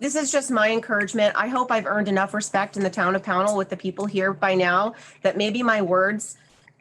this is just my encouragement. I hope I've earned enough respect in the town of Pownell with the people here by now that maybe my words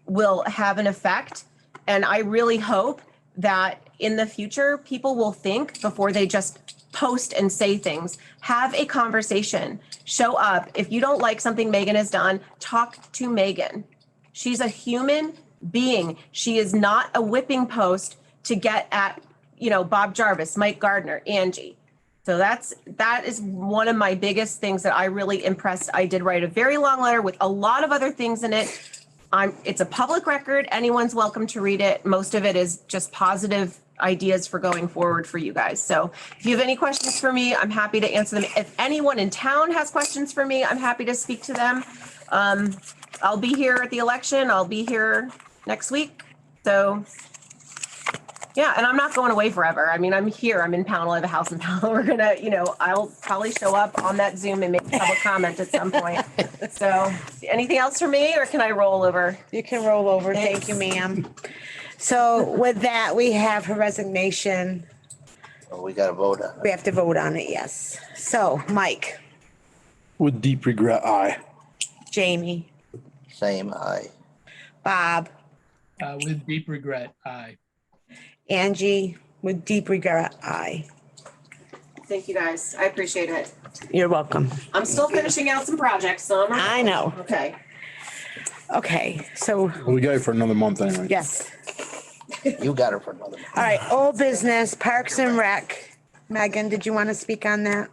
will have an effect. And I really hope that in the future, people will think before they just post and say things. Have a conversation. Show up. If you don't like something Megan has done, talk to Megan. She's a human being. She is not a whipping post to get at, you know, Bob Jarvis, Mike Gardner, Angie. So that's that is one of my biggest things that I really impressed. I did write a very long letter with a lot of other things in it. I'm it's a public record. Anyone's welcome to read it. Most of it is just positive ideas for going forward for you guys. So if you have any questions for me, I'm happy to answer them. If anyone in town has questions for me, I'm happy to speak to them. Um, I'll be here at the election. I'll be here next week. So yeah, and I'm not going away forever. I mean, I'm here. I'm in Pownell. I have a house in Pownell. We're gonna, you know, I'll probably show up on that Zoom and make a public comment at some point. So, anything else for me, or can I roll over? You can roll over. Thank you, ma'am. So with that, we have her resignation. Well, we got to vote on it. We have to vote on it, yes. So Mike, With deep regret, I. Jamie, Same, aye. Bob, Uh, with deep regret, aye. Angie, with deep regret, I. Thank you guys. I appreciate it. You're welcome. I'm still finishing out some projects, so I'm I know. okay. Okay, so We got it for another month anyway. yes. You got it for another. All right, old business, Parks and Rec. Megan, did you want to speak on that?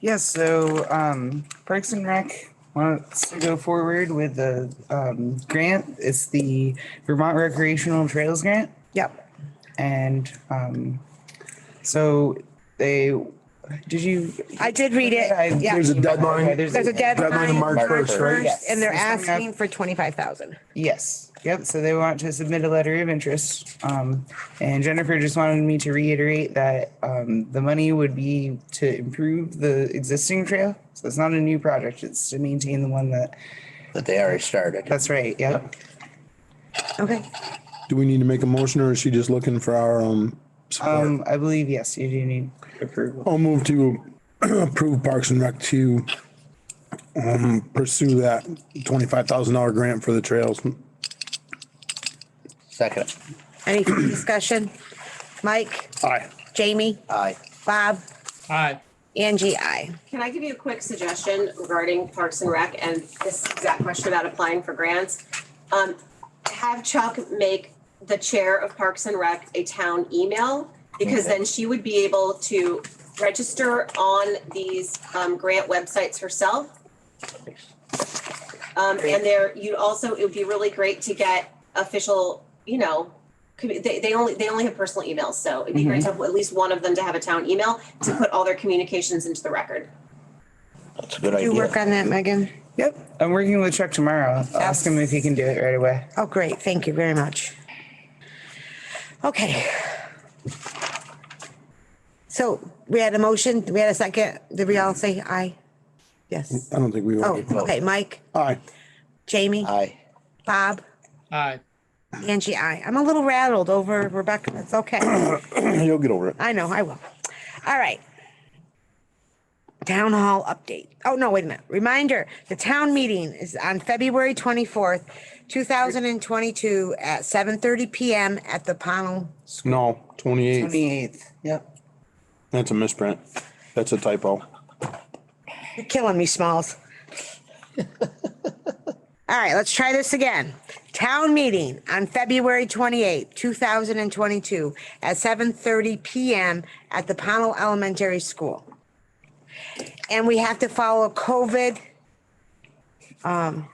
Yes, so um, Parks and Rec wants to go forward with the um, grant. It's the Vermont Recreational Trails Grant. Yep. And um, so they, did you? I did read it. I- Yeah. There's a deadline. There's a Deadline of deadline March March first, right? first. and they're Yes. asking for twenty-five thousand. Yes, yep, so they want to submit a letter of interest. Um, and Jennifer just wanted me to reiterate that, um, the money would be to improve the existing trail. So it's not a new project, it's to maintain the one that, That they already started. that's right, yep. Okay. Do we need to make a motion or is she just looking for our, um, support? Um, I believe, yes, you do need approval. I'll move to approve Parks and Rec to, um, pursue that twenty-five thousand dollar grant for the trails. Second, Any further discussion? Mike, Aye. Jamie, aye. Bob, Aye, Angie, I. Can I give you a quick suggestion regarding Parks and Rec and this exact question about applying for grants? Um, have Chuck make the chair of Parks and Rec a town email because then she would be able to register on these um, grant websites herself. Um, and there, you also, it would be really great to get official, you know, commu- they, they only, they only have personal emails, so it'd be great to have at least one of them to have a town email to put all their communications into the record. That's a good You work idea. on that, Megan? Yep, I'm working with Chuck tomorrow. I'll ask him if he can do it right away. Oh, great. Thank you very much. Okay. So we had a motion, we had a second. Did we all say aye? Yes. I don't think we Oh, will. okay. Mike, Aye. Jamie, Aye. Bob, aye. Angie, I. I'm a little rattled over Rebecca. It's okay. You'll get over it. I know, I will. All right. Town hall update. Oh, no, wait a minute. Reminder, the town meeting is on February twenty-fourth, two thousand and twenty-two at seven thirty PM at the Pownell. No, twenty-eight. Twenty-eighth, yep. That's a misprint. That's a typo. You're killing me, Smalls. All right, let's try this again. Town meeting on February twenty-eighth, two thousand and twenty-two at seven thirty PM at the Pownell Elementary School. And we have to follow COVID um,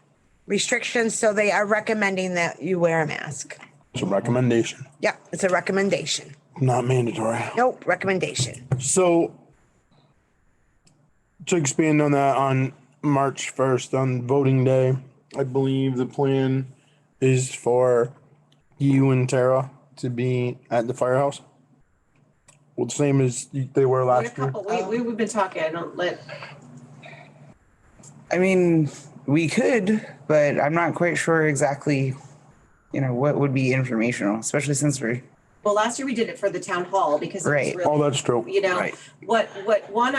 restrictions, so they are recommending that you wear a mask. It's a recommendation, Yep, it's a recommendation. not mandatory. Nope, recommendation. So to expand on that, on March first, on voting day, I believe the plan is for you and Tara to be at the firehouse. Well, the same as they were In a last year. couple, we, we- we've been talking, I don't let, I mean, we could, but I'm not quite sure exactly, you know, what would be informational, especially since we're well, last year we did it for the town hall because it was Right. Oh, really, that's true. you know, Right. what, what, one,